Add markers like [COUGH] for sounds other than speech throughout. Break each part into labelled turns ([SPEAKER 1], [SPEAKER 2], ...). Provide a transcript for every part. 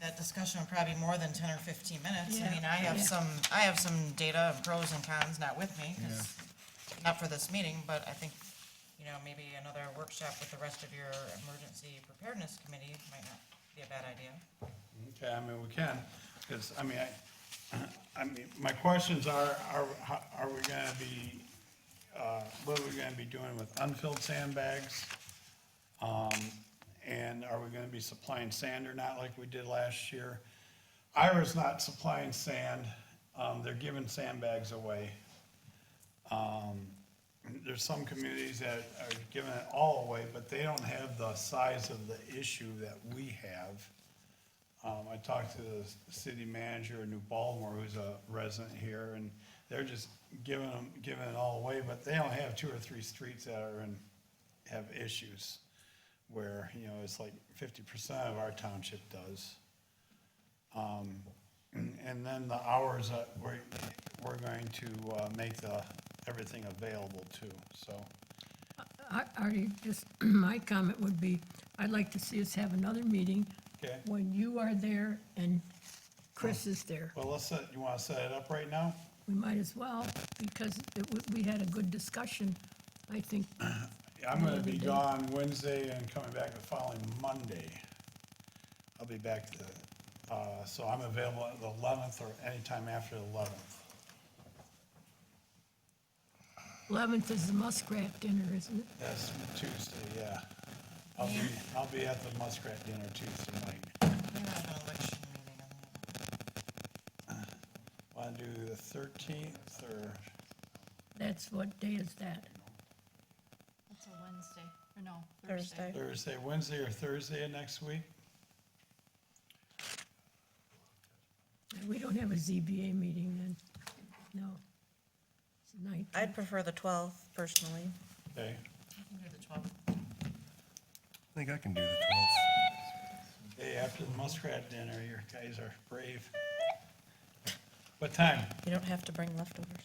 [SPEAKER 1] that discussion would probably be more than ten or fifteen minutes. I
[SPEAKER 2] Yeah.
[SPEAKER 1] mean, I have
[SPEAKER 2] Yeah.
[SPEAKER 1] some, I have some data of pros and cons, not with me, 'cause- not for this meeting, but I think, you know, maybe another workshop with the rest of your emergency preparedness committee might not be a bad idea.
[SPEAKER 3] Okay, I mean, we can, because, I mean, I, I mean, my questions are, are, how- are we gonna be, uh, what are we gonna be doing with unfilled sandbags? Um, and are we gonna be supplying sand or not like we did last year? Ira's not supplying sand, um, they're giving sandbags away. Um, there's some communities that are giving it all away, but they don't have the size of the issue that we have. Um, I talked to the city manager in New Baltimore, who's a resident here, and they're just giving them, giving it all away, but they don't have two or three streets that are in, have issues. Where, you know, it's like fifty percent of our township does. Um, and then the hours that we're, we're going to, uh, make the, everything available too, so.
[SPEAKER 2] I- Artie, just, [CLEARS THROAT] my comment would be, I'd like to see us have another meeting
[SPEAKER 3] Okay.
[SPEAKER 2] when you are there and Chris is there.
[SPEAKER 3] Well, let's set, you wanna set it up right now?
[SPEAKER 2] We might as well, because it wa- we had a good discussion, I think.
[SPEAKER 3] Yeah, I'm gonna
[SPEAKER 2] Another
[SPEAKER 3] be
[SPEAKER 2] day.
[SPEAKER 3] gone Wednesday and coming back the following Monday. I'll be back the, uh, so I'm available at the eleventh or anytime after the eleventh.
[SPEAKER 2] 11th is the muskrat dinner, isn't it?
[SPEAKER 3] That's Tuesday, yeah. I'll be, I'll be at the Muskrat Dinner Tuesday night.
[SPEAKER 1] We have an election meeting on the-
[SPEAKER 3] Wanna do the thirteenth or,
[SPEAKER 2] That's what day is that?
[SPEAKER 4] It's a Wednesday, or no,
[SPEAKER 5] Thursday.
[SPEAKER 4] Thursday.
[SPEAKER 3] Thursday, Wednesday or Thursday of next week?
[SPEAKER 2] We don't have a ZBA meeting then, no. It's the 19th.
[SPEAKER 5] I'd prefer the 12th personally.
[SPEAKER 3] Okay,
[SPEAKER 1] we can do the 12th.
[SPEAKER 6] I think I can do the 12th.
[SPEAKER 3] day after the Muskrat Dinner, your guys are brave. What time?
[SPEAKER 5] You don't have to bring leftovers.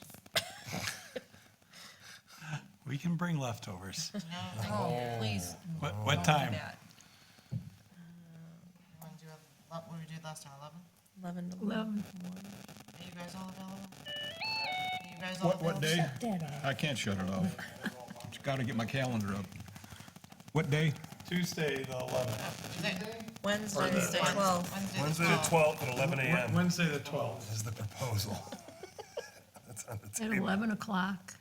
[SPEAKER 3] We can bring leftovers.
[SPEAKER 1] No, Oh. please,
[SPEAKER 3] What, what time?
[SPEAKER 1] you wanna do, a- what did we do last time, eleven?
[SPEAKER 5] 11 to
[SPEAKER 2] 11,
[SPEAKER 1] Are you guys all available? Are you guys all
[SPEAKER 7] What, what
[SPEAKER 1] available?
[SPEAKER 7] day?
[SPEAKER 2] that off.
[SPEAKER 7] I can't shut it off. Just gotta get my calendar up. What day?
[SPEAKER 3] Tuesday, the eleventh.
[SPEAKER 5] Wednesday, the 12th.
[SPEAKER 1] Wednesday the
[SPEAKER 6] Wednesday the 12th at 11
[SPEAKER 3] Wed-
[SPEAKER 6] a.m.
[SPEAKER 3] Wednesday, the twelfth.
[SPEAKER 6] is the proposal. [LAUGHS] That's on the
[SPEAKER 2] at
[SPEAKER 6] table.
[SPEAKER 2] 11 o'clock.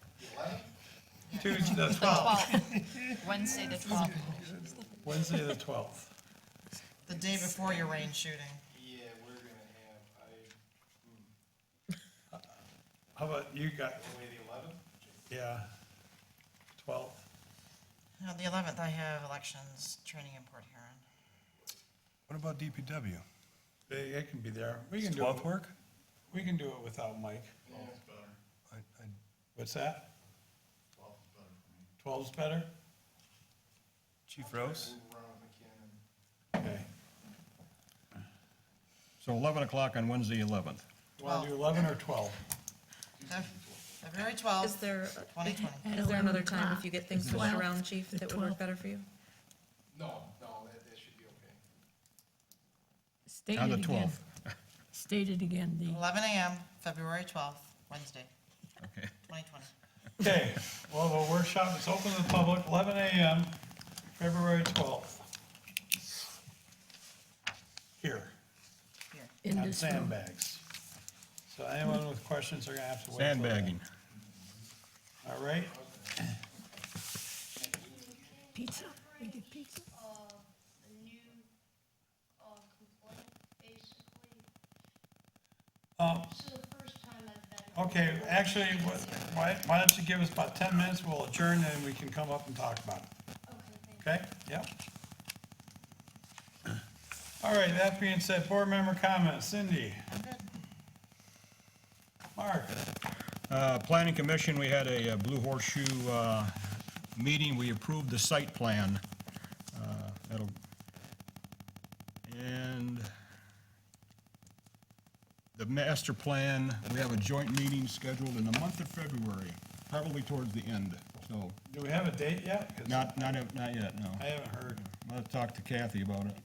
[SPEAKER 3] Tuesday, the
[SPEAKER 4] The
[SPEAKER 3] twelfth.
[SPEAKER 4] 12th, Wednesday the 12th.
[SPEAKER 3] Wednesday, the twelfth.
[SPEAKER 1] The day before your rain shooting.
[SPEAKER 8] Yeah, we're gonna have, I,
[SPEAKER 3] How about you guys?
[SPEAKER 8] away the eleventh?
[SPEAKER 3] Yeah. Twelfth.
[SPEAKER 1] On the eleventh, I have elections training in Port Huron.
[SPEAKER 6] What about DPW?
[SPEAKER 3] They, they can be there. We
[SPEAKER 6] Does
[SPEAKER 3] can do it.
[SPEAKER 6] 12th work?
[SPEAKER 3] We can do it without Mike.
[SPEAKER 6] I, I,
[SPEAKER 3] What's that? Twelve's better?
[SPEAKER 6] Chief Rose?
[SPEAKER 3] Okay.
[SPEAKER 7] So eleven o'clock on Wednesday, eleventh.
[SPEAKER 3] You wanna do eleven or twelve?
[SPEAKER 1] February
[SPEAKER 5] Is
[SPEAKER 1] twelfth,
[SPEAKER 5] there, uh,
[SPEAKER 1] twenty twenty.
[SPEAKER 2] At
[SPEAKER 5] is there another
[SPEAKER 2] 11
[SPEAKER 5] time if
[SPEAKER 2] o'clock.
[SPEAKER 5] you get things
[SPEAKER 2] The
[SPEAKER 5] pushed
[SPEAKER 2] 12th,
[SPEAKER 5] around, chief,
[SPEAKER 2] the
[SPEAKER 5] that would work
[SPEAKER 2] 12th.
[SPEAKER 5] better for you?
[SPEAKER 8] No, no, that, that should be okay.
[SPEAKER 2] State
[SPEAKER 7] On
[SPEAKER 2] it
[SPEAKER 7] the
[SPEAKER 2] again.
[SPEAKER 7] 12th.
[SPEAKER 2] State it again, the.
[SPEAKER 1] Eleven AM, February twelfth, Wednesday,
[SPEAKER 8] Okay.
[SPEAKER 1] twenty twenty.
[SPEAKER 3] Okay, well, the workshop is open to the public, eleven AM, February twelfth. Here,
[SPEAKER 1] Here.
[SPEAKER 2] in
[SPEAKER 3] on
[SPEAKER 2] this room.
[SPEAKER 3] sandbags. So anyone with questions are gonna have to wait. till then.
[SPEAKER 7] Sandbagging.
[SPEAKER 3] All right,
[SPEAKER 2] Pizza, we get pizza.
[SPEAKER 9] uh, a new uh, complaint, basically.
[SPEAKER 3] Um,
[SPEAKER 9] This is the first time I've been.
[SPEAKER 3] okay, actually, what- why, why don't you give us about ten minutes, we'll adjourn and we can come up and talk about it.
[SPEAKER 9] Okay, thank you.
[SPEAKER 3] Okay, yep. All right, that being said, board member comments, Cindy. Mark,
[SPEAKER 7] Uh, Planning Commission, we had a uh, Blue Horseshoe, uh, meeting. We approved the site plan. Uh, That'll, and the master plan, we have a joint meeting scheduled in the month of February, probably towards the end, so
[SPEAKER 3] do we have a date yet? 'Cause
[SPEAKER 7] not, not, not yet, no.
[SPEAKER 3] I haven't heard.
[SPEAKER 7] I'll talk to Kathy about it.